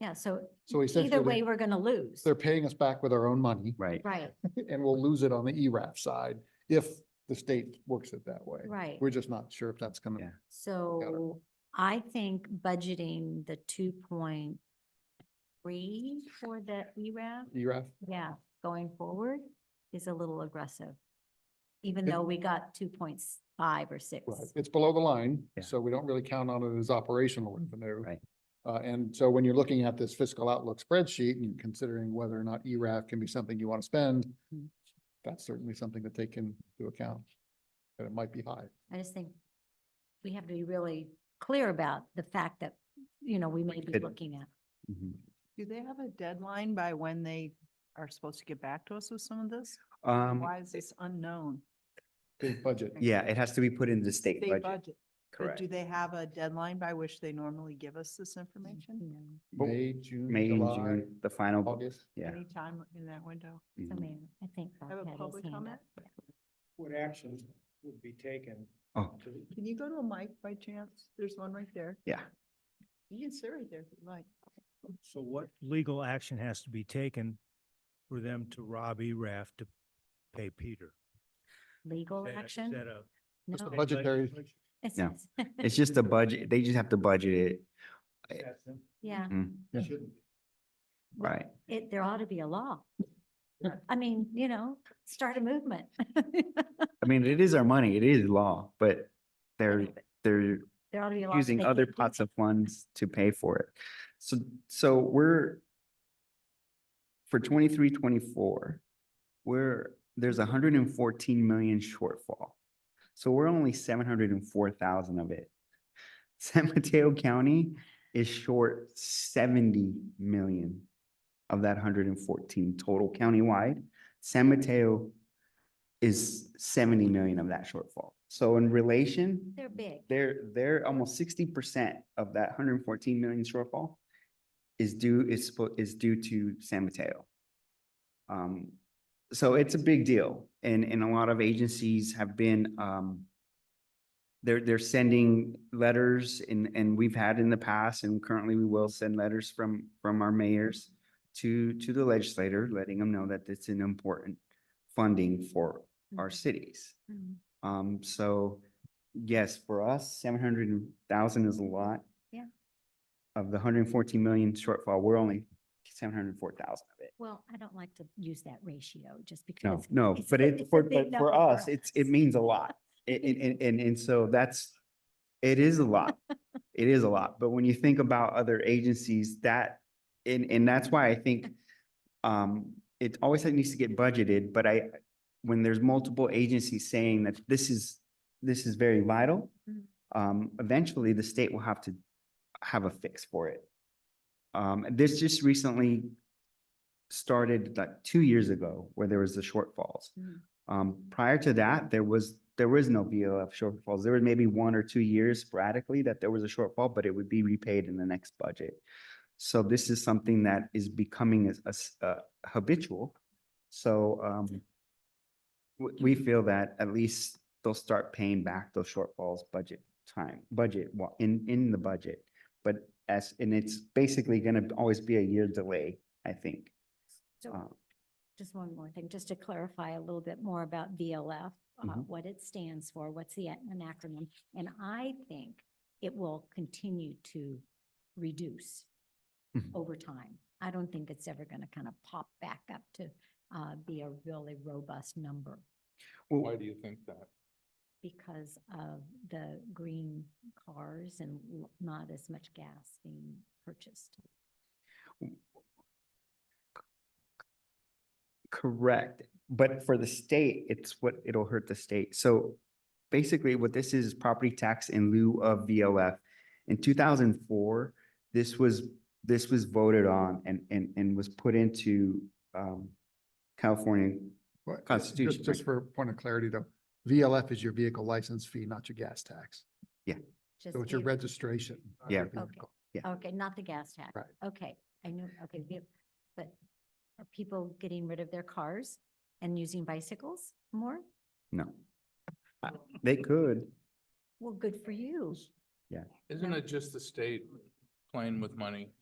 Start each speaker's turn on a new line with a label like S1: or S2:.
S1: Yeah, so
S2: So
S1: either way,
S2: essentially,
S1: we're gonna lose.
S2: they're paying us back with our own money
S3: Right.
S1: Right,
S2: and we'll lose it on the E ERAF side if the state works it that way.
S1: right.
S2: We're just not sure if that's gonna,
S3: Yeah.
S1: So I think budgeting the two point three for the ERAF,
S2: ERAF,
S1: yeah, going forward is a little aggressive. Even
S2: It-
S1: though we got two point five or six.
S2: right, it's below the line,
S3: Yeah.
S2: so we don't really count on it as operational revenue.
S3: Right.
S2: Uh, and so when you're looking at this fiscal outlook spreadsheet and you're considering whether or not E ERAF can be something you want to spend,
S1: Mhm.
S2: that's certainly something to take into account, that it might be high.
S1: I just think we have to be really clear about the fact that, you know, we may be
S3: Could-
S1: looking at.
S3: Mhm.
S4: Do they have a deadline by when they are supposed to get back to us with some of this?
S3: Um,
S4: Why is this unknown?
S2: Big budget.
S3: yeah, it has to be put into the state
S4: They
S3: budget.
S4: budget, but
S3: Correct.
S4: do they have a deadline by which they normally give us this information?
S1: you
S3: But
S2: May, June,
S3: May and
S2: July,
S3: June, the final, bu-
S2: August.
S3: yeah.
S4: Anytime in that window?
S1: know,
S3: mhm.
S1: So, man, I think.
S4: I
S1: Bob
S4: have a
S1: had his
S4: public
S1: hand up.
S4: comment.
S5: what actions would be taken
S3: Oh,
S5: to
S4: Can you go to a mic by chance? There's one right there.
S3: yeah.
S4: You can sit right there if you like.
S5: So what legal action has to be taken for them to rob E ERAF to pay Peter?
S1: Legal
S5: Is that- is
S1: action?
S5: that a-
S2: Just a
S1: No.
S2: budgetary,
S1: It's-
S3: No.
S1: it's-
S3: It's just a budget. They just have to budget it. Mm.
S5: That's them.
S1: Yeah,
S2: Yeah.
S5: Shouldn't be.
S3: Right.
S1: it, there ought to be a law.
S2: Yeah.
S1: I mean, you know, start a movement.
S3: I mean, it is our money. It is law, but they're,
S1: know, but-
S3: they're
S1: There ought to be a law.
S3: using
S1: they
S3: other
S1: can't do
S3: pots
S1: that.
S3: of funds to pay for it. So, so we're for twenty-three, twenty-four, we're, there's hundred and fourteen million shortfall. So we're only seven hundred and four thousand of it. San Mateo County is short seventy million of that hundred and fourteen total countywide. San Mateo is seventy million of that shortfall. So in relation,
S1: They're big.
S3: they're, they're almost sixty percent of that hundred and fourteen million shortfall is due, is, spo- is due to San Mateo. Um, so it's a big deal and, and a lot of agencies have been, um, they're, they're sending letters and, and we've had in the past and currently we will send letters from, from our mayors to, to the legislator, letting them know that it's an important funding for
S1: Mm-hmm.
S3: our cities.
S1: Mhm.
S3: Um, so yes, for us, seven hundred thousand is a lot.
S1: Yeah.
S3: Of the hundred and fourteen million shortfall, we're only seven hundred and four thousand of it.
S1: Well, I don't like to use that ratio just
S3: No,
S1: because.
S3: no,
S1: it's
S3: but
S1: a-
S3: it,
S1: it's a
S3: for,
S1: big
S3: but for
S1: number
S3: us, it's, it means a lot. And, and, and, and so that's, it is a lot. It is a lot. But when you think about other agencies that, and, and that's why I think um, it always needs to get budgeted, but I, when there's multiple agencies saying that this is, this is very vital,
S1: Mm.
S3: um, eventually the state will have to have a fix for it. Um, this just recently started like two years ago where there was the shortfalls.
S1: Mhm.
S3: Um, prior to that, there was, there was no VLF shortfalls. There was maybe one or two years sporadically that there was a shortfall, but it would be repaid in the next budget. So this is something that is becoming as, as, uh, habitual. So, um, we, we feel that at least they'll start paying back those shortfalls budget time, budget, wa- in, in the budget. But as, and it's basically gonna always be a year delay, I think.
S1: So-
S3: Um,
S1: Just one more thing, just to clarify a little bit more about VLF, uh,
S3: Mhm.
S1: what it stands for, what's the ac- an acronym. And I think it will continue to reduce
S3: Mhm.
S1: over time. I don't think it's ever going to kind of pop back up to uh, be a really robust number
S3: well,
S2: why do you think that?
S1: because of the green cars and l- not as much gas being purchased.
S3: Correct, but for the state, it's what, it'll hurt the state. So basically what this is, is property tax in lieu of VLF. In two thousand and four, this was, this was voted on and, and, and was put into, um, California.
S2: Well, just-
S3: Constitution,
S2: just- Just
S3: right.
S2: for point of clarity though, VLF is your vehicle license fee, not your gas tax.
S1: Just
S2: So it's your
S1: vehicle-
S2: registration. of
S3: Yeah.
S2: your vehicle.
S1: Okay, not the gas tax.
S2: Right.
S1: Okay, I knew, okay, vehi- but are people getting rid of their cars and using bicycles more?
S3: No. Uh, They could,
S1: Well, good for you.
S6: Isn't it just the state playing with money?